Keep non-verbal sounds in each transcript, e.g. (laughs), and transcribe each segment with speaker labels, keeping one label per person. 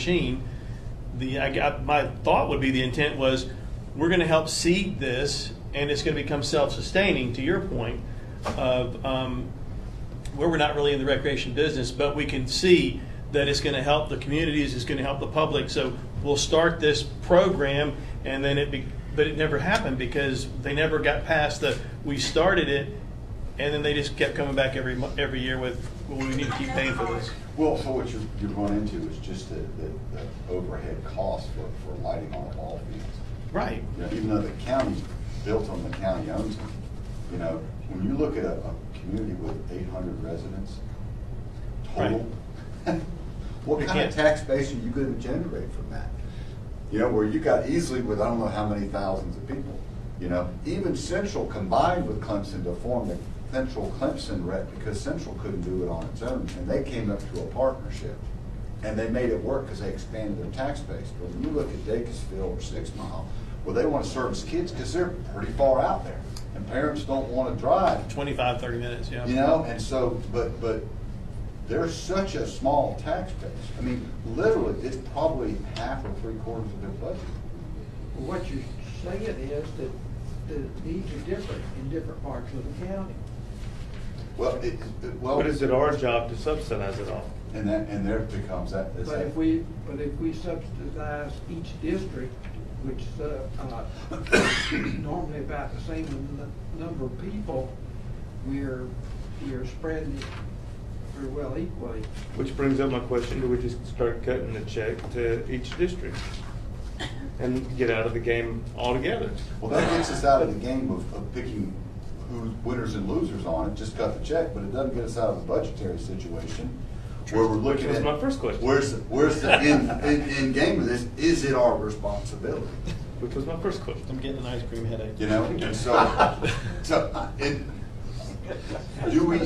Speaker 1: machine, the, I got, my thought would be the intent was, we're gonna help seed this, and it's gonna become self-sustaining, to your point, of, um, where we're not really in the recreation business, but we can see that it's gonna help the communities, it's gonna help the public, so we'll start this program, and then it be, but it never happened, because they never got past the, we started it, and then they just kept coming back every, mo- every year with, well, we need to keep paying for this.
Speaker 2: Well, so what you're, you're going into is just the, the, the overhead cost for, for lighting on a ball field.
Speaker 1: Right.
Speaker 2: You know, even though the county built them, the county owns them, you know, when you look at a, a community with eight hundred residents total,
Speaker 1: You
Speaker 2: what kind
Speaker 1: can't-
Speaker 2: of tax base are you gonna generate from that? You know, where you got easily with, I don't know how many thousands of people, you know, even Central combined with Clemson to form the Central Clemson rep, because Central couldn't do it on its own, and they came up to a partnership. And they made it work because they expanded their tax base. But when you look at Dacusville or Six Mile, well, they want to service kids because they're pretty far out there, and parents don't want to drive
Speaker 1: 25, 30 minutes, yeah.
Speaker 2: you know, and so, but, but they're such a small tax base. I mean, literally, it's probably half or three quarters of their budget.
Speaker 3: What you're saying is that uh, the needs are different in different parts of the county.
Speaker 2: Well, it, it- well,
Speaker 4: But is it our job to subsidize it all?
Speaker 2: and that, and there becomes that. is
Speaker 3: But
Speaker 2: that-
Speaker 3: if we, but if we subsidize each district, which, uh, uh, (coughs) normally about the same n- number of people, we're, we're spreading it very well equally.
Speaker 4: Which brings up my question, do we just start cutting the check to each district? And get out of the game altogether?
Speaker 2: Well, that gets us out of the game of, of picking who winners and losers on it, just cut the check, but it doesn't get us out of the budgetary situation where we're looking
Speaker 4: Which was
Speaker 2: at.
Speaker 4: my first question.
Speaker 2: Where's, the- where's the end, end, end game of this? Is it our responsibility?
Speaker 4: Which was my first question.
Speaker 1: I'm getting an ice cream headache.
Speaker 2: You know, and so, (laughs) so, and do we,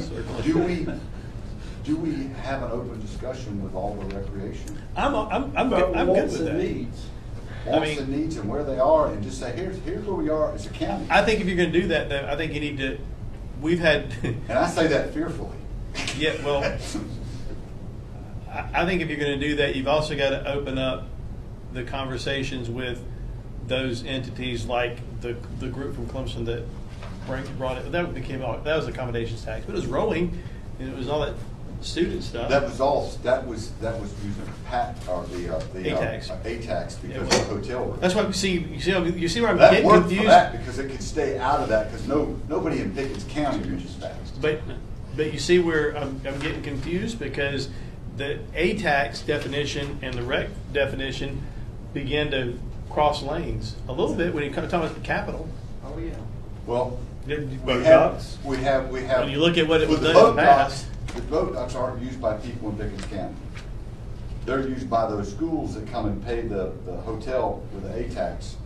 Speaker 2: do we, do we have an open discussion with all the recreation?
Speaker 1: I'm, I'm, I'm, good- I'm good with that. I
Speaker 2: Wants and
Speaker 1: mean-
Speaker 2: needs and where they are, and just say, here's, here's where we are as a county.
Speaker 1: I think if you're gonna do that, then I think you need to, we've had, (laughs)
Speaker 2: And I say that fearfully.
Speaker 1: yeah, well,
Speaker 2: (laughs)
Speaker 1: I, I think if you're gonna do that, you've also gotta open up the conversations with those entities like the, the group from Clemson that bring- brought it, that became, all- that was accommodations tax, but it was rolling, and it was all that student stuff.
Speaker 2: That was all, that was, that was using pat, or the, uh, the. uh,
Speaker 1: ATAX.
Speaker 2: ATAX
Speaker 1: It
Speaker 2: because
Speaker 1: was-
Speaker 2: of hotel room.
Speaker 1: That's why you see, you see, you see where I'm
Speaker 2: That
Speaker 1: getting
Speaker 2: worked for
Speaker 1: confused.
Speaker 2: that because it could stay out of that, because no, nobody in Pickens County reaches that.
Speaker 1: But, but you see where I'm, I'm getting confused because the A-tax definition and the rec definition begin to cross lanes a little bit when you come talking about the capital.
Speaker 3: Oh, yeah.
Speaker 2: Well,
Speaker 4: Boat
Speaker 2: We have,
Speaker 4: docks?
Speaker 2: we have, we have.
Speaker 1: When you look at what it was
Speaker 2: with the
Speaker 1: done in
Speaker 2: boat
Speaker 1: the past.
Speaker 2: docks, The boat docks aren't used by people in Pickens County. They're used by those schools that come and pay the, the hotel with the A-tax,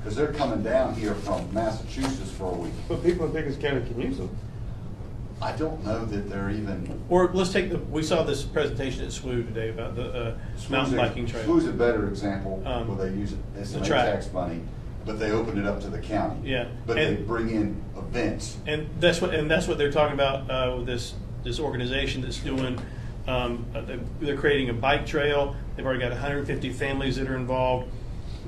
Speaker 2: because they're coming down here from Massachusetts for a week.
Speaker 4: But people in Pickens County can use them.
Speaker 2: I don't know that they're even.
Speaker 1: Or let's take the, we saw this presentation at SWU today about the uh, mountain biking trail.
Speaker 2: Who's a better example,
Speaker 1: Um,
Speaker 2: where they use it as
Speaker 1: the
Speaker 2: some
Speaker 1: track.
Speaker 2: A-tax money, but they open it up to the county.
Speaker 1: Yeah,
Speaker 2: But they
Speaker 1: and-
Speaker 2: bring in events.
Speaker 1: And that's what, and that's what they're talking about uh, with this, this organization that's doing, um, uh, they- they're creating a bike trail. They've already got 150 families that are involved.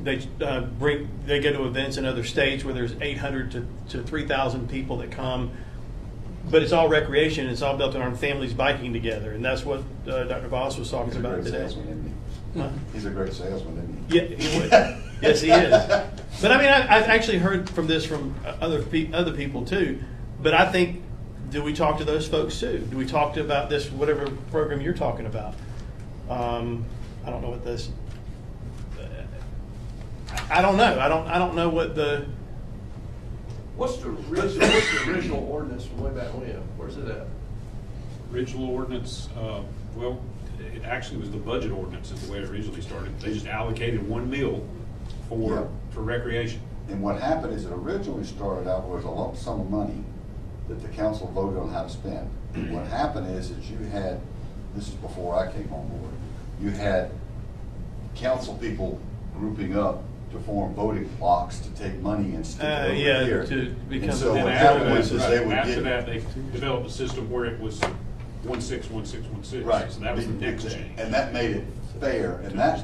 Speaker 1: They uh, bring, they go to events in other states where there's 800 to, to 3,000 people that come. But it's all recreation. It's all built around families biking together, and that's what uh, Dr. Voss was talking
Speaker 2: He's a
Speaker 1: about
Speaker 2: great
Speaker 1: today.
Speaker 2: salesman, isn't he?
Speaker 1: Huh?
Speaker 2: He's a great salesman, isn't he?
Speaker 1: Yeah, he would. yes, he is. But I mean, I, I've actually heard from this from uh, other pe- other people too. But I think, do we talk to those folks too? Do we talk to about this whatever program you're talking about? Um, I don't know what this. uh, I I don't know. I don't. I don't know what the.
Speaker 5: What's the original, what's the original ordinance from way back when? Where's it at?
Speaker 6: Original ordinance, uh, well, it actually was the budget ordinance is the way it originally started. They just allocated one mil
Speaker 2: Yeah.
Speaker 6: for, for recreation.
Speaker 2: And what happened is it originally started out with a lump sum of money that the council voted on how to spend. What happened is that you had, this is before I came on board, you had council people grouping up to form voting blocks to take money and stick it
Speaker 1: Uh,
Speaker 2: over
Speaker 1: yeah,
Speaker 2: here.
Speaker 1: to become
Speaker 2: And so
Speaker 1: an
Speaker 2: what
Speaker 6: And
Speaker 2: happened
Speaker 6: after
Speaker 2: was is they
Speaker 6: that,
Speaker 2: would
Speaker 6: after that,
Speaker 2: get.
Speaker 6: they developed a system where it was one six, one six, one six. So that was the next change.
Speaker 2: And that made it fair, and that